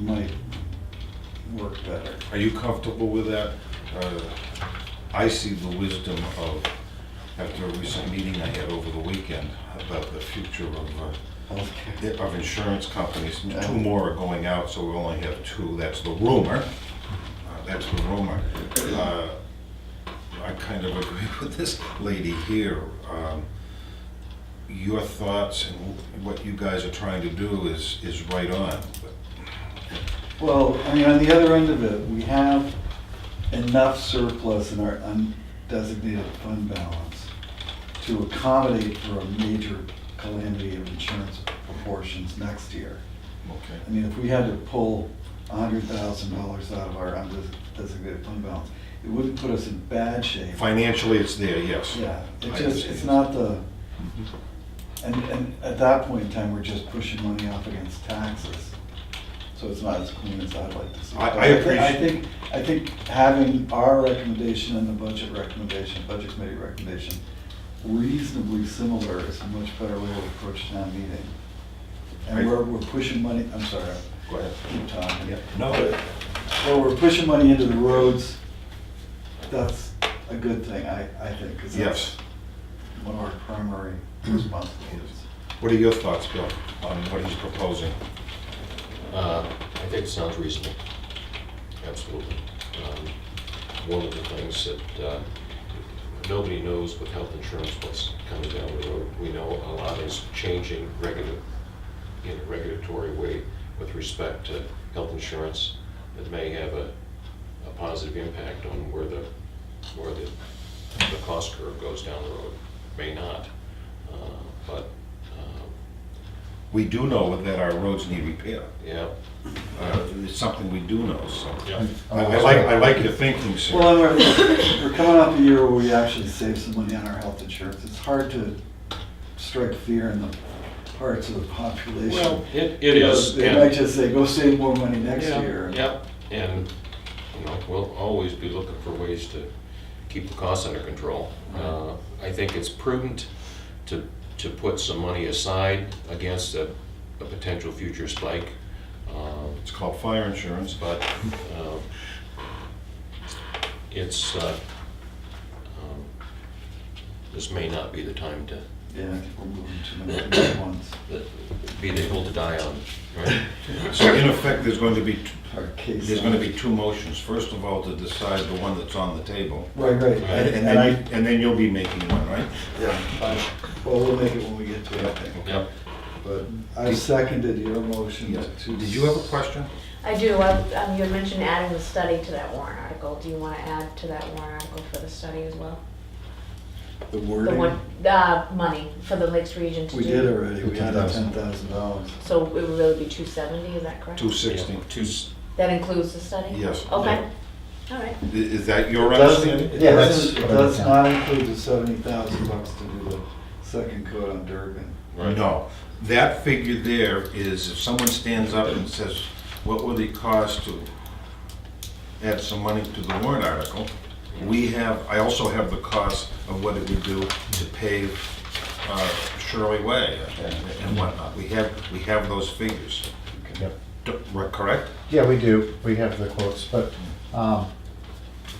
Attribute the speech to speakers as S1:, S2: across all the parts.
S1: might work better.
S2: Are you comfortable with that? Uh, I see the wisdom of, after a recent meeting I had over the weekend about the future of, uh,
S1: Healthcare.
S2: of insurance companies.
S1: Yeah.
S2: Two more are going out, so we only have two, that's the rumor. Uh, That's the rumor. Uh, I kind of agree with this lady here. Um, Your thoughts and what you guys are trying to do is, is right on.
S1: Well, I mean, on the other end of it, we have enough surplus in our undesignated fund balance to accommodate for a major calamity of insurance proportions next year.
S2: Okay.
S1: I mean, if we had to pull hundred thousand dollars out of our undesignated fund balance, it wouldn't put us in bad shape.
S2: Financially, it's there, yes.
S1: Yeah, Mm-hmm.
S2: I
S1: it just,
S2: understand.
S1: it's not the, and, and at that point in time, we're just pushing money off against taxes. So it's not as clean as I'd like to see. it.
S2: I- I
S1: But thi- I
S2: appreciate-
S1: think, I think having our recommendation and the budget recommendation, budget committee recommendation reasonably similar is a much better way to approach town meeting.
S2: I-
S1: And we're, we're pushing money, I'm sorry,
S2: Go ahead.
S1: I keep talking.
S2: No,
S1: But- Well, we're pushing money into the roads, that's a good thing, I, I think, because
S2: Yes.
S1: that's one of our primary responsibilities.
S2: What are your thoughts, Bill, on what he's proposing?
S3: Uh, I think it sounds reasonable, absolutely. Um, One of the things that, uh, nobody knows with health insurance what's coming down the road. We know a lot is changing regu- in a regulatory way with respect to health insurance that may have a a positive impact on where the, where the the cost curve goes down the road, may not. Uh, But, um,
S2: We do know that our roads need repair.
S3: yeah,
S2: Uh, It's something we do know, so.
S3: yeah.
S2: I I like, I like your thinking,
S1: Well,
S2: sir.
S1: and we're, we're coming off a year where we actually saved some money on our health insurance, it's hard to strike fear in the hearts of the population.
S3: Well, it, it is.
S1: They
S3: and-
S1: might just say, go save more money next
S3: Yeah,
S1: year.
S3: Yep, and, you know, we'll always be looking for ways to keep the costs under control. Uh, I think it's prudent to, to put some money aside against a, a potential future spike. Um,
S2: It's called fire insurance, but
S3: but um, it's, uh, um, this may not be the time to,
S1: Yeah, I think we're moving too many things at once,
S3: be the hill to die on, right?
S2: so in effect, there's going to be, t-
S1: our case.
S2: there's going to be two motions. First of all, to decide the one that's on the table.
S1: Right, right,
S2: And
S1: and
S2: and
S1: and I,
S2: then, you- and then you'll be making one, right?
S1: yeah, I- well, we'll make it when we get to it, I think.
S3: Yep.
S1: But I seconded your motion
S2: Yes.
S1: to.
S2: Did you have a question?
S4: I do, I- um, you had mentioned adding the study to that warrant article, do you wanna add to that warrant article for the study as well?
S1: The
S4: The
S1: wording?
S4: one, uh, money for the Lakes region to do?
S1: We did already, we had the ten
S2: $10,000.
S1: thousand dollars.
S4: So it would really be two seventy, is that correct?
S2: Two sixty? Two.
S4: That includes the study?
S2: Yes.
S4: Okay, all right,
S2: Is that your
S1: Doesn't,
S2: understanding?
S1: it
S5: Yes.
S1: doesn't, it does not include the seventy thousand bucks to do the second coat on Durgan.
S3: Right.
S2: No, that figure there is if someone stands up and says, what would it cost to add some money to the warrant article? We have, I also have the cost of what it would do to pave uh, Shirley Way and and whatnot. We have, we have those figures,
S5: Yep.
S2: D- re- correct?
S5: Yeah, we do, we have the quotes, but um,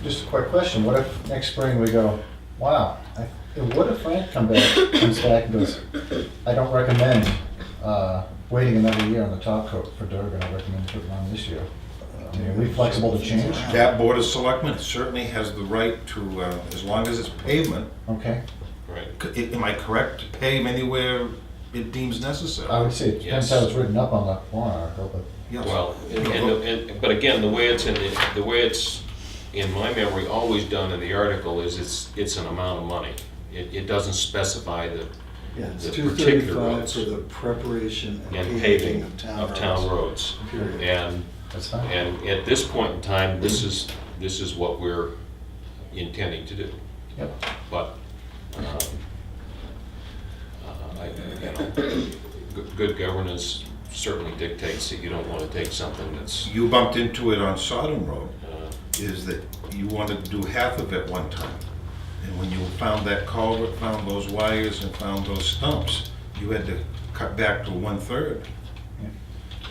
S5: just a quick question, what if next spring we go, wow, I- and what if Frank come back, comes back and goes, I don't recommend uh, waiting another year on the top coat for Durgan, I recommend putting on this year. I mean, Are we flexible to change?
S2: That Board of Selectmen certainly has the right to, uh, as long as it's pavement,
S5: Okay,
S3: right.
S2: c- am I correct, to pave anywhere it deems necessary?
S5: I would say it depends how it's written up on the warrant article, but
S2: Yes.
S3: Well, and, and- and, but again, the way it's in, the the way it's, in my memory, always done in the article is it's, it's an amount of money. It, it doesn't specify the,
S1: Yeah, it's
S3: The
S1: two
S3: particular
S1: thirty-five
S3: roads.
S1: for the preparation
S3: and
S1: and
S3: paving
S1: paving of town
S3: of town
S1: roads.
S3: roads.
S1: Period.
S3: And,
S5: that's fine.
S3: and at this point in time, this is, this is what we're intending to do.
S5: Yep.
S3: But, um, uh, I, you know, good- good governance certainly dictates that you don't want to take something that's,
S2: You bumped into it on Sodom Road,
S3: uh,
S2: is that you wanted to do half of it one time. And when you found that culvert, found those wires, and found those stumps, you had to cut back to one-third.